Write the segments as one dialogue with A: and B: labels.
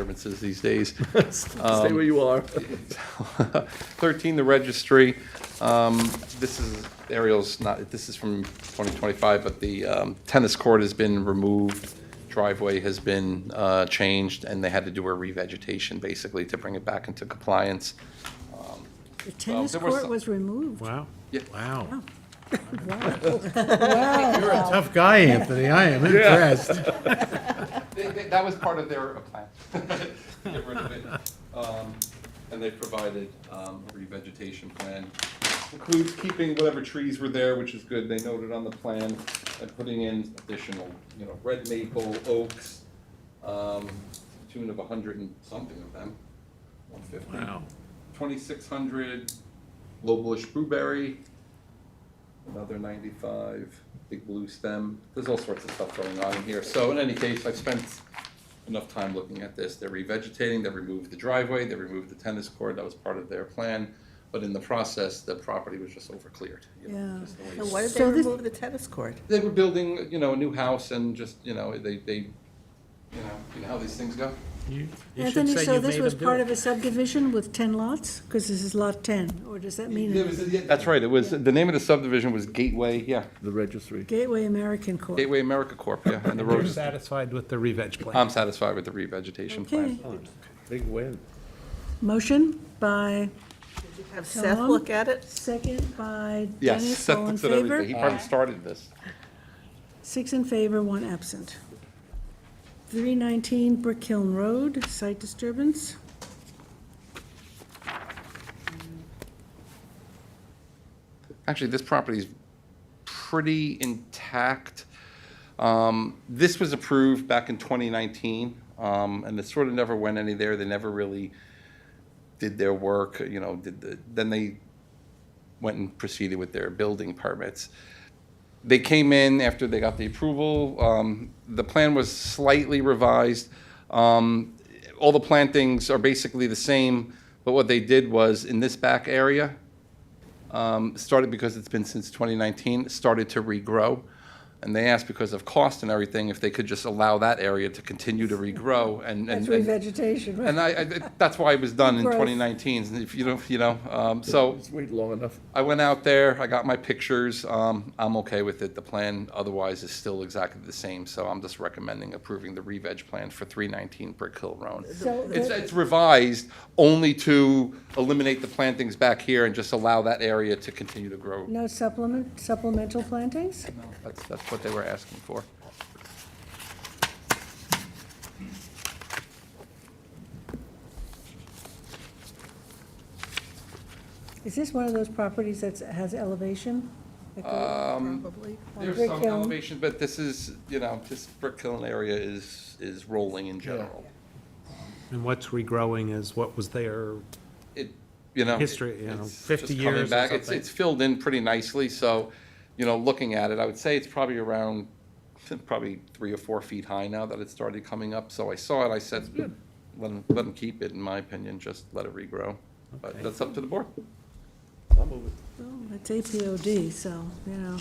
A: disturbances these days.
B: Stay where you are.
A: 13, the registry. Um, This is, Ariel's not, this is from 2025, but the um, tennis court has been removed, driveway has been uh, changed, and they had to do a revegetation, basically, to bring it back into compliance.
C: The tennis
A: there was
C: court
A: some-
C: was removed.
D: Wow.
A: Yeah.
D: Wow.
C: Wow.
D: Tough guy, Anthony. I am impressed.
A: They- they- That was part of their uh, plan, to get rid of it. Um, And they provided um, a revegetation plan. Includes keeping whatever trees were there, which is good, they noted on the plan, and putting in additional, you know, red maple, oaks, um, to the tune of a hundred and something of them, one fifty.
D: Wow.
A: Twenty-six hundred low bush blueberry, another ninety-five, big blue stem. There's all sorts of stuff going on in here. So in any case, I've spent enough time looking at this. They're revegetating, they removed the driveway, they removed the tennis court, that was part of their plan. But in the process, the property was just overcleared. you know,
C: Yeah.
A: just the way
E: So
A: it's-
E: why did they
C: So this-
E: remove the tennis court?
A: They were building, you know, a new house and just, you know, they, they, you know, you know how these things go?
D: You you should
C: Anthony,
D: say
C: so
D: you
C: this
D: made
C: was
D: him do
C: part of
D: it.
C: a subdivision with 10 lots? Because this is lot 10, or does that
A: Yeah,
C: mean
A: it was- yeah, That's right, it was, the name of the subdivision was Gateway, yeah,
B: The registry.
C: Gateway American Court?
A: Gateway America Corp., yeah, and the road
D: You're
A: is
D: satisfied with the revenge plan?
A: I'm satisfied with the revegetation plan.
C: Okay,
B: Big win.
C: motion by,
E: Have Seth
C: Tom?
E: look at it?
C: second by
A: Yes,
C: Dennis,
A: Seth
C: all in
A: looks at everything. He
C: favor?
A: probably started this.
C: Six in favor, one absent. 319 Brick Hill Road, site disturbance.
A: Actually, this property is pretty intact. Um, This was approved back in 2019, um, and it sort of never went any there. They never really did their work, you know, did the, then they went and proceeded with their building permits. They came in after they got the approval. um, The plan was slightly revised. Um, All the plantings are basically the same, but what they did was, in this back area, um, started because it's been since 2019, started to regrow. And they asked because of cost and everything, if they could just allow that area to continue to regrow and. and-
C: That's
A: and-
C: revegetation, right?
A: and I, I, that's why it was done in
C: Growth.
A: 2019, and if you don't, you know, um, so
B: Just wait long enough.
A: I went out there, I got my pictures, um, I'm okay with it. The plan otherwise is still exactly the same, so I'm just recommending approving the re-veg plan for 319 Brick Hill Road.
C: So
A: It's,
C: that-
A: it's revised only to eliminate the plantings back here and just allow that area to continue to grow.
C: No supplement, supplemental plantings?
A: That's, that's what they were asking for.
C: Is this one of those properties that has elevation? Like a-
A: Um,
E: Probably.
C: on
A: There's
C: Brick
A: some
C: Hill?
A: elevation, but this is, you know, this Brick Hill area is, is rolling in general.
D: And what's regrowing is what was there.
A: it, you know.
D: History, you know,
A: it's
D: 50
A: just coming
D: years or
A: back. It's,
D: something.
A: it's filled in pretty nicely, so, you know, looking at it, I would say it's probably around, probably three or four feet high now that it started coming up, so I saw it, I said, let them, let them keep it, in my opinion, just let it regrow. But
D: Okay.
A: that's up to the board.
C: Well, It's APOD, so, you know.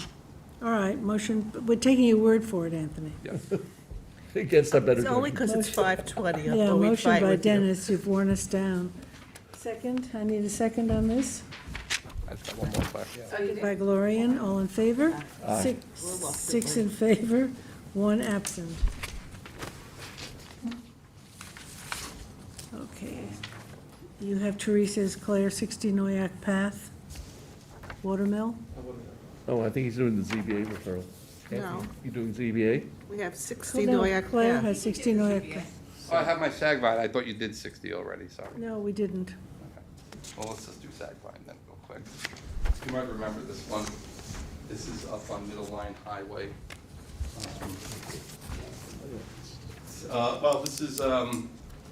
C: All right, motion, we're taking your word for it, Anthony.
B: It gets that better.
E: It's only because it's five twenty,
C: Yeah,
E: although we
C: motion
E: fight
C: by
E: with you.
C: Dennis, you've worn us down. Second, I need a second on this.
A: I've got one more question.
C: Second by Glorian, all in favor? Six, six in favor, one absent. Okay. You have Teresa's Claire, 60 Noyak Path, Watermill.
B: Oh, I think he's doing the ZBA referral.
E: No,
B: You doing ZBA?
E: we have sixty
C: No,
E: Noyak
C: Claire
E: Ave.
C: has 60 Noyak. Path.
A: Oh, I have my sag vine, I thought you did sixty already, sorry.
C: No, we didn't.
A: Well, let's just do sag vine then, real quick. You might remember this one. This is up on Middle Line Highway. Um, Uh, well, this is, um,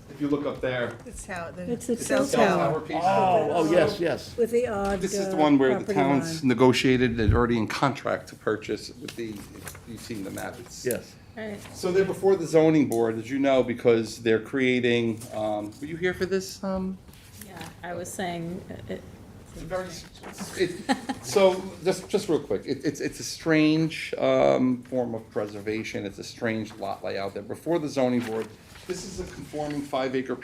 A: if you look up there.
E: It's how,
C: It's the
E: the
C: cell
E: cell
C: tower.
E: tower.
A: piece.
B: Oh, oh, yes, yes.
C: With the odd.
A: This is the
C: uh,
A: one where the
C: property
A: towns
C: line.
A: negotiated, they're already in contract to purchase with the, you've seen the map. It's-
B: Yes.
E: Right.
A: So they're before the zoning board, as you know, because they're creating, um, were you here for this, um,
F: Yeah, I was saying, uh, it,
A: It's a very s- it- So, just, just real quick, it, it's, it's a strange, um, form of preservation, it's a strange lot layout, they're before the zoning board This is a conforming five acre